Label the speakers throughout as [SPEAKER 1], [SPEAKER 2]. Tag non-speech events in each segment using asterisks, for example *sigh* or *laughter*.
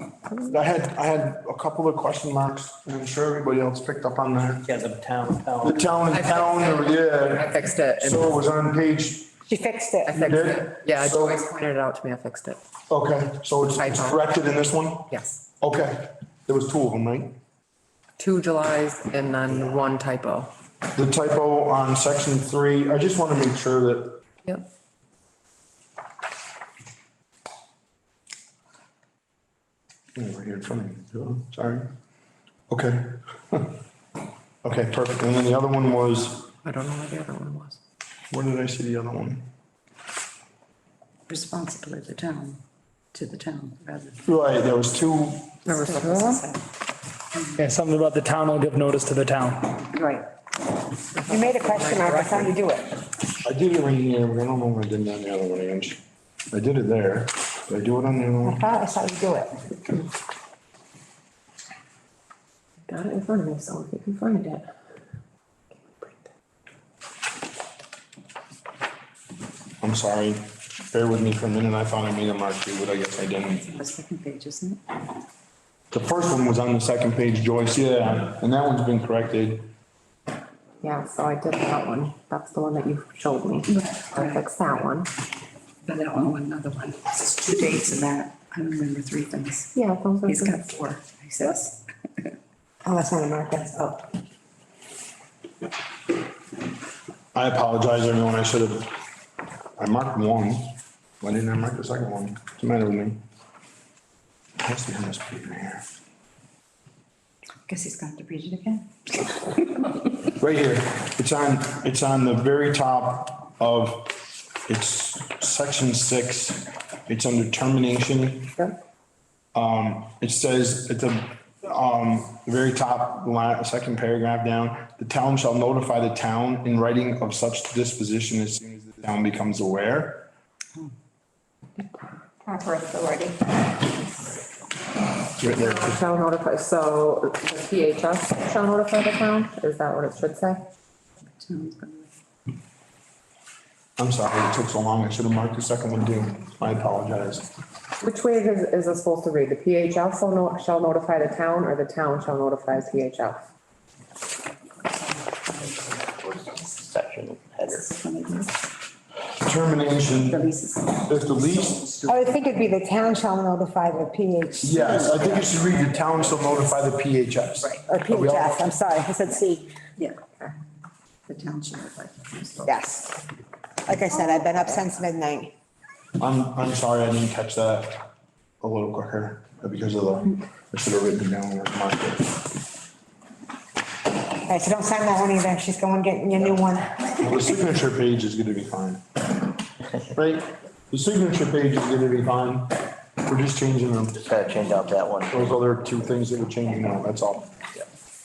[SPEAKER 1] I had, I had a couple of question marks, and I'm sure everybody else picked up on that.
[SPEAKER 2] Yeah, the town,
[SPEAKER 1] The
[SPEAKER 2] town.
[SPEAKER 1] town and town,
[SPEAKER 3] I
[SPEAKER 1] yeah,
[SPEAKER 3] fixed it. and-
[SPEAKER 1] so it was on page,
[SPEAKER 4] She fixed
[SPEAKER 3] I
[SPEAKER 4] it.
[SPEAKER 3] fixed
[SPEAKER 1] did?
[SPEAKER 3] it. Yeah,
[SPEAKER 1] So-
[SPEAKER 3] Joyce pointed it out to me. I fixed it.
[SPEAKER 1] okay, so it's it's
[SPEAKER 3] Typo.
[SPEAKER 1] corrected in this one?
[SPEAKER 3] Yes.
[SPEAKER 1] Okay, there was two of them, right?
[SPEAKER 3] Two Julys and then one typo.
[SPEAKER 1] The typo on section three, I just want to make sure that,
[SPEAKER 3] Yep.
[SPEAKER 1] oh, right here in front of you, sorry. Okay. *laughs* Okay, perfect, and then the other one was,
[SPEAKER 3] I don't know where the other one was.
[SPEAKER 1] where did I see the other one?
[SPEAKER 5] responsibility of the town, to the town, rather. than-
[SPEAKER 1] Right, there was two,
[SPEAKER 3] Remember something?
[SPEAKER 6] Yeah, something about the town will give notice to the town.
[SPEAKER 5] Right,
[SPEAKER 4] You made a question mark, that's how you do it.
[SPEAKER 1] I did it right here, but I don't know where I did it on the other one, Ange. I did it there, did I do it on the other one?
[SPEAKER 4] Huh, That's how you do it.
[SPEAKER 3] Got it in front of me, so if you can find it.
[SPEAKER 1] I'm sorry, bear with me for a minute, I thought I made a mark too, but I guess I didn't.
[SPEAKER 5] the second page, isn't it?
[SPEAKER 1] The first one was on the second page, Joyce, yeah, and that one's been corrected.
[SPEAKER 7] Yeah, so I did that one. That's the one that you showed me. I fixed that one.
[SPEAKER 5] But that one, another one, it's just two dates and that, I remember three things.
[SPEAKER 7] Yeah, those are.
[SPEAKER 5] He's
[SPEAKER 7] the-
[SPEAKER 5] got four, he says.
[SPEAKER 4] Oh, that's not a mark, that's up.
[SPEAKER 1] I apologize, everyone, I should have, I marked one, why didn't I mark the second one? What's the matter with me? It has to be on this paper here.
[SPEAKER 5] Guess he's gonna have to read it again.
[SPEAKER 1] Right here, it's on, it's on the very top of, it's section six, it's under termination. Um, it says at the, um, very top line, second paragraph down, the town shall notify the town in writing of such disposition as soon as the town becomes aware.
[SPEAKER 7] Proper authority.
[SPEAKER 1] It's written there.
[SPEAKER 7] Shall notify, so the PHS shall notify the town? Is that what it should say?
[SPEAKER 5] Town's gonna-
[SPEAKER 1] I'm sorry, it took so long, I should have marked the second one too, I apologize.
[SPEAKER 7] Which way is, is it supposed to read? The PHS shall no- shall notify the town or the town shall notify PHS?
[SPEAKER 2] Section header.
[SPEAKER 5] gonna do-
[SPEAKER 1] Termination,
[SPEAKER 5] Releases.
[SPEAKER 1] if the least,
[SPEAKER 4] I would think it'd be the town shall notify the PH,
[SPEAKER 1] Yes, I think you should read the town shall notify the PHS. Right.
[SPEAKER 4] or PHS, I'm sorry, I said C,
[SPEAKER 5] Yeah. The town should have like.
[SPEAKER 4] yes. Like I said, I've been up since midnight.
[SPEAKER 1] I'm, I'm sorry, I didn't catch that a little quicker uh, because of the, I should have written down where to mark it.
[SPEAKER 4] All right, so don't sign that one either, she's going getting your new one.
[SPEAKER 1] Well, The signature page is gonna be fine. Right? The signature page is gonna be fine. We're just changing them.
[SPEAKER 2] Just gotta change out that one.
[SPEAKER 1] Those other two things that we're changing now, that's all.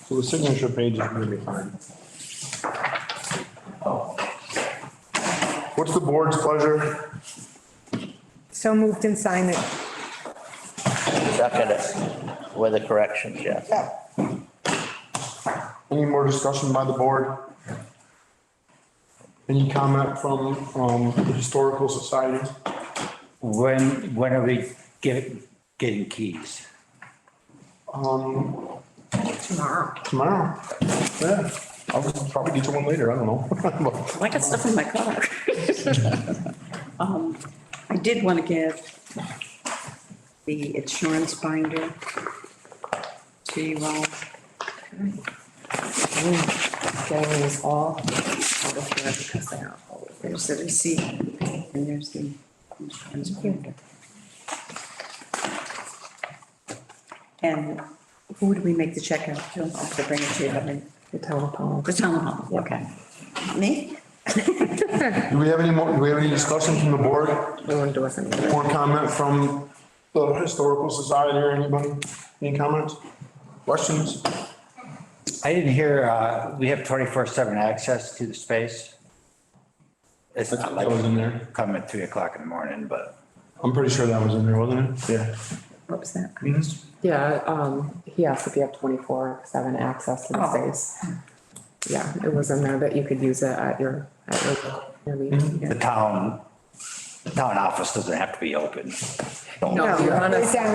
[SPEAKER 1] So the signature page is gonna be fine.
[SPEAKER 2] Oh.
[SPEAKER 1] What's the board's pleasure?
[SPEAKER 4] So moved and signed it.
[SPEAKER 2] Second it with the corrections, yeah.
[SPEAKER 1] Any more discussion by the board? Any comment from, um, the historical society?
[SPEAKER 8] When, when are we getting, getting keys?
[SPEAKER 1] Um,
[SPEAKER 3] Tomorrow.
[SPEAKER 1] tomorrow, yeah, I'll probably get you one later, I don't *laughs* know.
[SPEAKER 5] I got stuff in my car. Um, I did want to give the insurance binder to uh, you all.
[SPEAKER 3] Getting these all.
[SPEAKER 5] out of here because they are all- There's the receipt and there's the insurance binder. And who do we make the check out to? I'll have to bring it to you, I mean,
[SPEAKER 3] The town of Powell.
[SPEAKER 5] the town hall, okay. Me?
[SPEAKER 1] Do we have any more, do we have any discussion from the board?
[SPEAKER 3] We want to do us any.
[SPEAKER 1] More comment from the historical society or anybody? Any comments? Questions?
[SPEAKER 8] I didn't hear, uh, we have twenty-four seven access to the space. It's not
[SPEAKER 1] That was
[SPEAKER 8] like
[SPEAKER 1] in there.
[SPEAKER 8] come at three o'clock in the morning, but
[SPEAKER 1] I'm pretty sure that was in there, wasn't it? Yeah.
[SPEAKER 5] What was that?
[SPEAKER 3] Yeah, um, he asked if you have twenty-four seven access to the
[SPEAKER 5] Oh.
[SPEAKER 3] space. Yeah, it was in there that you could use it at your, at your- your meeting.
[SPEAKER 8] the town, the town office doesn't have to be open.
[SPEAKER 3] No, you're on a
[SPEAKER 4] it's on-
[SPEAKER 3] separate-